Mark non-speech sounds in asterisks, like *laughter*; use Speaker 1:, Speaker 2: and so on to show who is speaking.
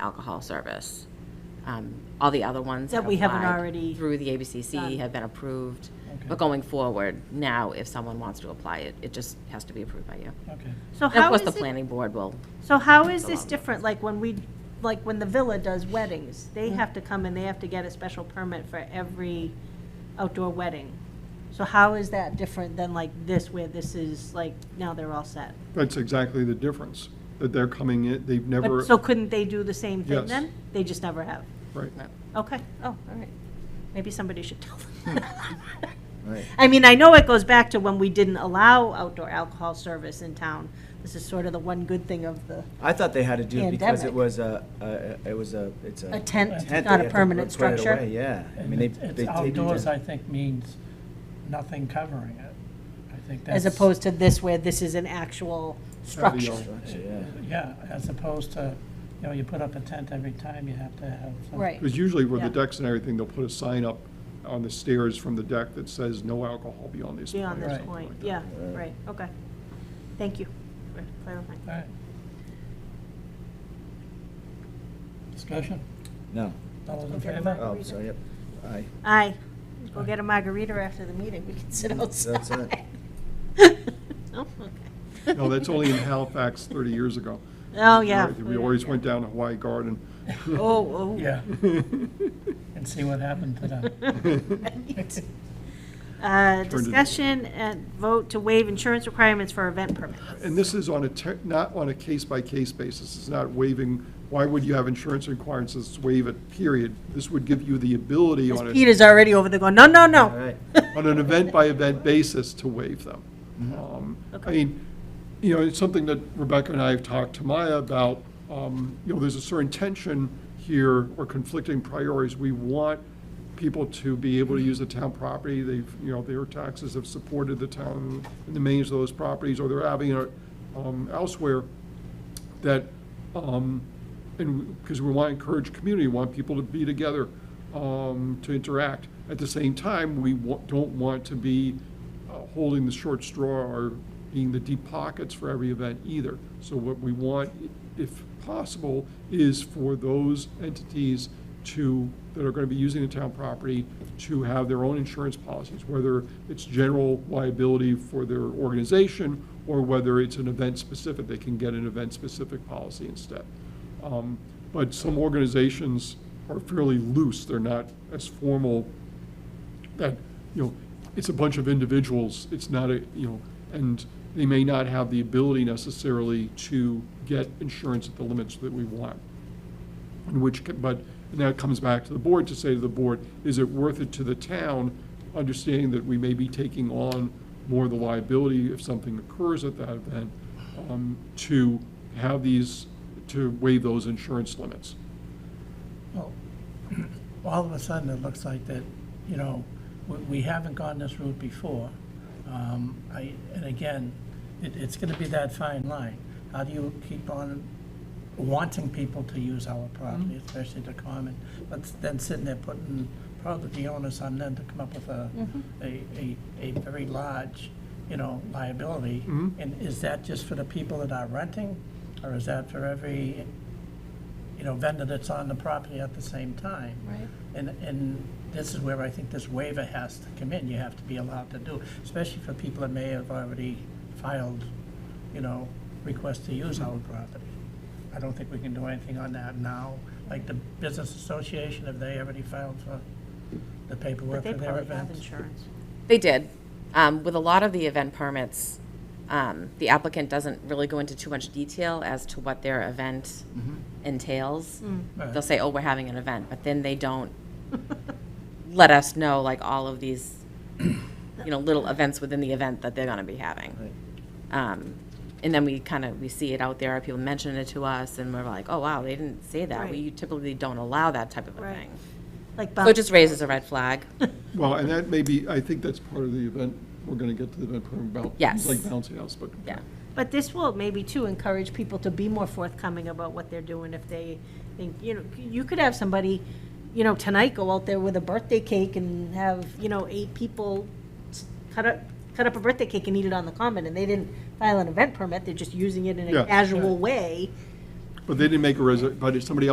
Speaker 1: alcohol service. Um, All the other ones
Speaker 2: That
Speaker 1: that
Speaker 2: we haven't
Speaker 1: applied
Speaker 2: already
Speaker 1: Through the ABCC have been approved, but going forward, now, if someone wants to apply it, it just has to be approved by you.
Speaker 3: Okay.
Speaker 1: And
Speaker 2: So
Speaker 1: of
Speaker 2: how
Speaker 1: course,
Speaker 2: is
Speaker 1: the
Speaker 2: it,
Speaker 1: planning board will,
Speaker 2: so how is
Speaker 1: the
Speaker 2: this
Speaker 1: law.
Speaker 2: different, like when we, like when the Villa does weddings? They have to come and they have to get a special permit for every outdoor wedding. So how is that different than like this, where this is like, now they're all set?
Speaker 4: That's exactly the difference, that they're coming in, they've never,
Speaker 2: But, so couldn't they do the same thing
Speaker 4: Yes.
Speaker 2: then? They just never have?
Speaker 4: right.
Speaker 2: Okay, oh, all right. Maybe somebody should tell them.
Speaker 4: Hmm.
Speaker 2: *laughs*
Speaker 5: Right.
Speaker 2: I mean, I know it goes back to when we didn't allow outdoor alcohol service in town. This is sort of the one good thing of the,
Speaker 5: I thought they had to do it because
Speaker 2: Pandemic.
Speaker 5: it was a, a- it was a, it's a.
Speaker 2: a tent,
Speaker 5: they
Speaker 2: not
Speaker 5: have
Speaker 2: a
Speaker 5: to
Speaker 2: permanent
Speaker 5: put it away,
Speaker 2: structure.
Speaker 5: Yeah. I
Speaker 3: And
Speaker 5: mean, they,
Speaker 3: it- it's
Speaker 5: they take it
Speaker 3: outdoors, I
Speaker 5: down.
Speaker 3: think, means nothing covering it. I think that's.
Speaker 2: As opposed to this where this is an actual structure.
Speaker 5: Structure, yeah.
Speaker 3: Yeah, as opposed to, you know, you put up a tent every time, you have to have. some-
Speaker 2: Right.
Speaker 4: Because usually with the
Speaker 2: Yeah.
Speaker 4: decks and everything, they'll put a sign up on the stairs from the deck that says, no alcohol beyond this point.
Speaker 2: Beyond
Speaker 4: or
Speaker 2: this
Speaker 3: Right.
Speaker 2: point, yeah, right, okay. Thank you for clarifying.
Speaker 3: All right. Discussion?
Speaker 5: No.
Speaker 3: All those in
Speaker 2: Okay.
Speaker 3: favor?
Speaker 5: Oh, sorry, yep. Aye.
Speaker 2: Aye, go get a margarita after the meeting, we can sit outside.
Speaker 5: That's it.
Speaker 2: Oh, okay.
Speaker 4: No, that's
Speaker 2: *laughs*
Speaker 4: only in Halifax 30 years ago.
Speaker 2: Oh, yeah.
Speaker 4: Right, We always went down to Hawaii Garden.
Speaker 2: Oh,
Speaker 3: Yeah, and see what happened
Speaker 2: *laughs*
Speaker 3: to
Speaker 5: *laughs*
Speaker 3: them.
Speaker 2: oh. Uh,
Speaker 4: to-
Speaker 2: Discussion and vote to waive insurance requirements for event permits.
Speaker 4: And this is on a, te- not on a case-by-case basis, it's not waiving, why would you have insurance requirements, it's waive it, period. This would give you the ability on a,
Speaker 2: Peter's already over there going, no, no,
Speaker 5: All
Speaker 2: no. *laughs*
Speaker 4: *laughs*
Speaker 5: right.
Speaker 4: on an event-by-event basis to waive them. Um, I mean, you know, it's something that Rebecca and I have talked to Maya about, um, you know, there's a certain tension here or conflicting priorities. We want people to be able to use the town property, they've, you know, their taxes have supported the town and the maintenance of those properties, or they're having it um, elsewhere, that, um, and, because we want to encourage community, want people to be together, um, to interact. At the same time, we wa- don't want to be uh, holding the short straw or being the deep pockets for every event either. So what we want, i- if possible, is for those entities to, that are going to be using the town property, to have their own insurance policies, whether it's general liability for their organization or whether it's an event-specific, they can get an event-specific policy instead. Um, But some organizations are fairly loose, they're not as formal that, you know, it's a bunch of individuals, it's not a, you know, and they may not have the ability necessarily to get insurance at the limits that we want. In which, ca- but, and that comes back to the board to say to the board, is it worth it to the town, understanding that we may be taking on more of the liability if something occurs at that event, um, to have these, to waive those insurance limits?
Speaker 3: Well, *clears throat* all of a sudden, it looks like that, you know, we, we haven't gone this route before. Um, I, and again, it, it's gonna be that fine line. How do you keep on wanting people to use our property, especially the common, but then sitting there putting probably the onus on them to come up with a, a, a, a very large, you know, liability? And is that just for the people that are renting, or is that for every you know, vendor that's on the property at the same time. Right. And, and this is where I think this waiver has to come in, you have to be allowed to do, especially for people that may have already filed, you know, requests to use our property. I don't think we can do anything on that now, like the business association, have they already filed for the paperwork
Speaker 2: They
Speaker 3: for their
Speaker 2: probably have
Speaker 3: event?
Speaker 2: insurance.
Speaker 1: they did. Um, With a lot of the event permits, um, the applicant doesn't really go into too much detail as to what their event entails.
Speaker 2: Mm.
Speaker 1: They'll say, oh, we're having an event, but then they don't let us know, like, all of these, you know, little events within the event that they're going to be having. *laughs* Um, And then we kind of, we see it out there, people mention it to us, and we're like, oh, wow, they didn't say that.
Speaker 2: Right.
Speaker 1: We typically don't allow that type of a
Speaker 2: Right.
Speaker 1: thing.
Speaker 2: Like,
Speaker 1: So it
Speaker 2: bump-
Speaker 1: just raises a red
Speaker 2: *laughs*
Speaker 1: flag.
Speaker 4: Well, and that may be, I think that's part of the event, we're gonna get to the event program about.
Speaker 1: Yes.
Speaker 4: Like bouncy house, but.
Speaker 1: Yeah.
Speaker 2: but this will maybe too encourage people to be more forthcoming about what they're doing if they think, you know, you could have somebody, you know, tonight go out there with a birthday cake and have, you know, eight people s- cut up, cut up a birthday cake and eat it on the common, and they didn't file an event permit, they're just using it in a
Speaker 4: Yeah.
Speaker 2: casual way.
Speaker 4: But they didn't make a reservation. but if somebody else